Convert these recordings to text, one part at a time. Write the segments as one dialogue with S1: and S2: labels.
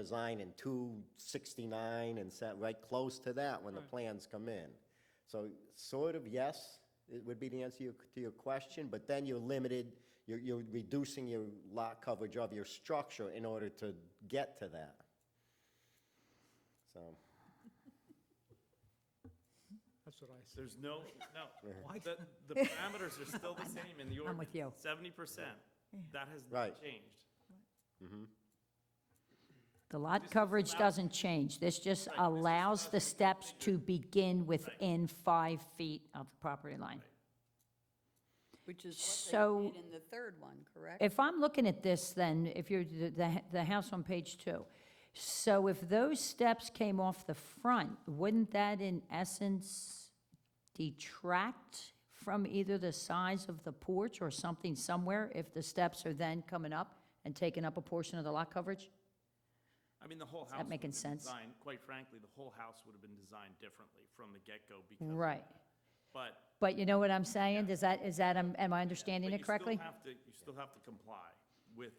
S1: design in two sixty-nine and set right close to that when the
S2: Right.
S1: plans come in. So sort of yes, it would be the answer your- to your question, but then you're limited, you're, you're reducing your lot coverage of your structure in order to get to that. So,
S2: That's what I said.
S3: There's no, no,
S2: Why-
S3: the, the parameters are still the same in the
S4: I'm
S3: ordinance.
S4: with you.
S3: Seventy percent, that has
S1: Right.
S3: not changed.
S4: The lot
S3: This
S4: coverage
S3: allows-
S4: doesn't change, this just
S3: Right, this just
S4: allows
S3: allows
S4: the
S3: you to
S4: steps
S3: configure-
S4: to begin within five feet of the property line.
S5: Which is
S4: So-
S5: what they did in the third one, correct?
S4: If I'm looking at this, then, if you're, the- the, the house on page two, so if those steps came off the front, wouldn't that in essence detract from either the size of the porch or something somewhere, if the steps are then coming up and taking up a portion of the lot coverage?
S3: I mean, the whole house.
S4: that
S3: would've
S4: making
S3: been
S4: sense?
S3: designed- Quite frankly, the whole house would have been designed differently from the get-go because. of
S4: Right,
S3: that. But.
S4: but you know what I'm saying, is that, is that, am am I understanding
S3: but
S4: it correctly?
S3: You still have to, you still have to comply with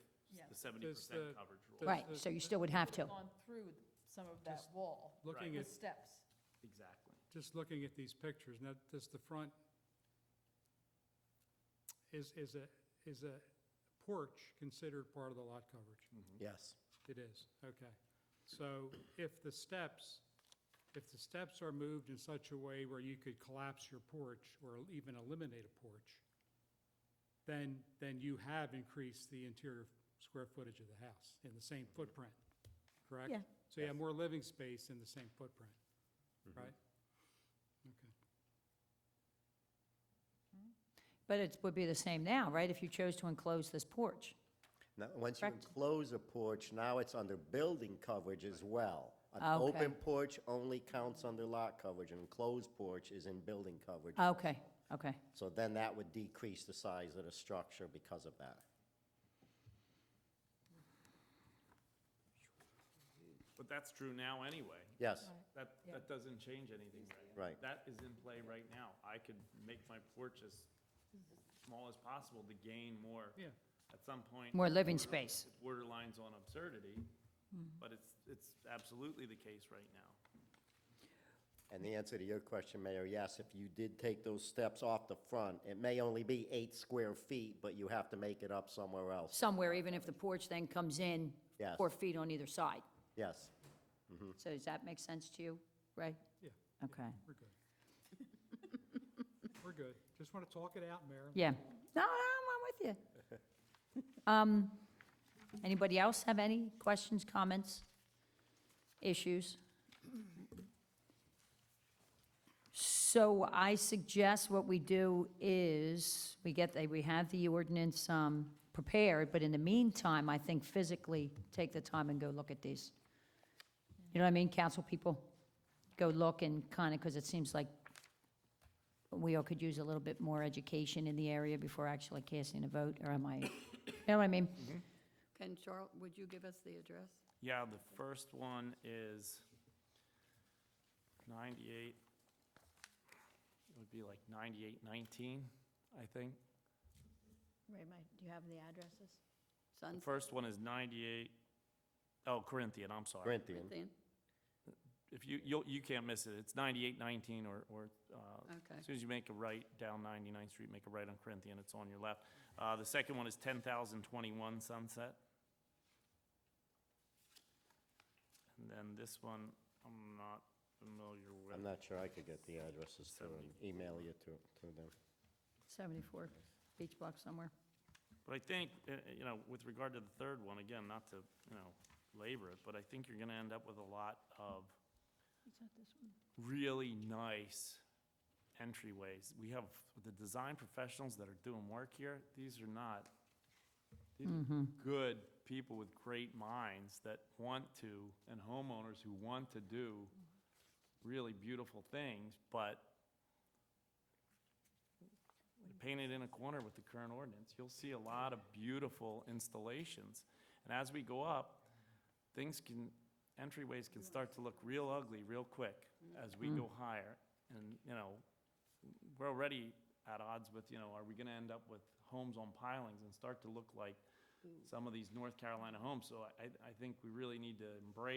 S3: the seventy
S2: Does
S3: percent
S2: the-
S3: coverage rule.
S2: does-
S4: Right, so you still would have to.
S6: gone through some of that wall,
S2: Looking
S6: the
S2: at,
S6: steps.
S3: Exactly.
S2: just looking at these pictures, now, does the front, is, is a, is a porch considered part of the lot coverage?
S1: Mm. yes,
S2: It is, okay. So if the steps, if the steps are moved in such a way where you could collapse your porch or even eliminate a porch, then, then you have increased the interior square footage of the house in the same footprint, correct?
S4: Yeah.
S2: So you have more living space in the same footprint, right? Okay.
S4: But it would be the same now, right, if you chose to enclose this porch?
S1: now, once you
S4: Correct.
S1: enclose a porch, now it's under building coverage as well. An open
S4: Okay.
S1: porch only counts under lot coverage, an enclosed porch is in building coverage.
S4: Okay, okay.
S1: So then that would decrease the size of the structure because of that.
S3: But that's true now anyway.
S1: Yes,
S3: That, that doesn't change anything right now.
S1: Right.
S3: That is in play right now. I could make my porch as small as possible to gain more.
S2: Yeah.
S3: At some point.
S4: More living
S3: border-
S4: space.
S3: it Borderlines on absurdity, but it's, it's absolutely the case right now.
S1: and the answer to your question, Mayor, yes, if you did take those steps off the front, it may only be eight square feet, but you have to make it up somewhere else.
S4: Somewhere, even if the porch then comes in
S1: Yes.
S4: four feet on either side.
S1: Yes,
S4: So does that make sense to you, Ray?
S2: Yeah,
S4: Okay,
S2: we're good. We're good. Just want to talk it out, Mayor.
S4: yeah. No, no, I'm with you. Um, Anybody else have any questions, comments, issues? So I suggest what we do is, we get, the- we have the ordinance um, prepared, but in the meantime, I think physically, take the time and go look at these. You know what I mean, council people? Go look and kind of, because it seems like we all could use a little bit more education in the area before actually casting a vote, or am I, you know what I mean?
S5: Can Charl, would you give us the address?
S3: Yeah, the first one is 98, it would be like 9819, I think.
S6: Ray, might- do you have the addresses?
S3: The
S5: Sun's
S3: first one is 98, oh, Corinthian, I'm sorry.
S1: Corinthian,
S5: Corinthian?
S3: If you, you'll, you can't miss it, it's 9819 or, or, uh,
S5: Okay.
S3: as soon as you make a right down 99th Street, make a right on Corinthian, it's on your left. Uh, the second one is 10,021 Sunset. And then this one, I'm not familiar with.
S1: I'm not sure I could get the addresses to them, email you to, to them.
S4: 74, beach block somewhere.
S3: But I think, uh, uh, you know, with regard to the third one, again, not to, you know, labor it, but I think you're gonna end up with a lot of really nice entryways. We have the design professionals that are doing work here. These are not, these are good people with great minds that want to, and homeowners who want to do really beautiful things, but painted in a corner with the current ordinance, you'll see a lot of beautiful installations. And as we go up, things can, entryways can start to look real ugly real quick as we go higher. And, you know, we're already at odds with, you know, are we gonna end up with homes on pilings and start to look like some of these North Carolina homes. So I, I think we really need to embrace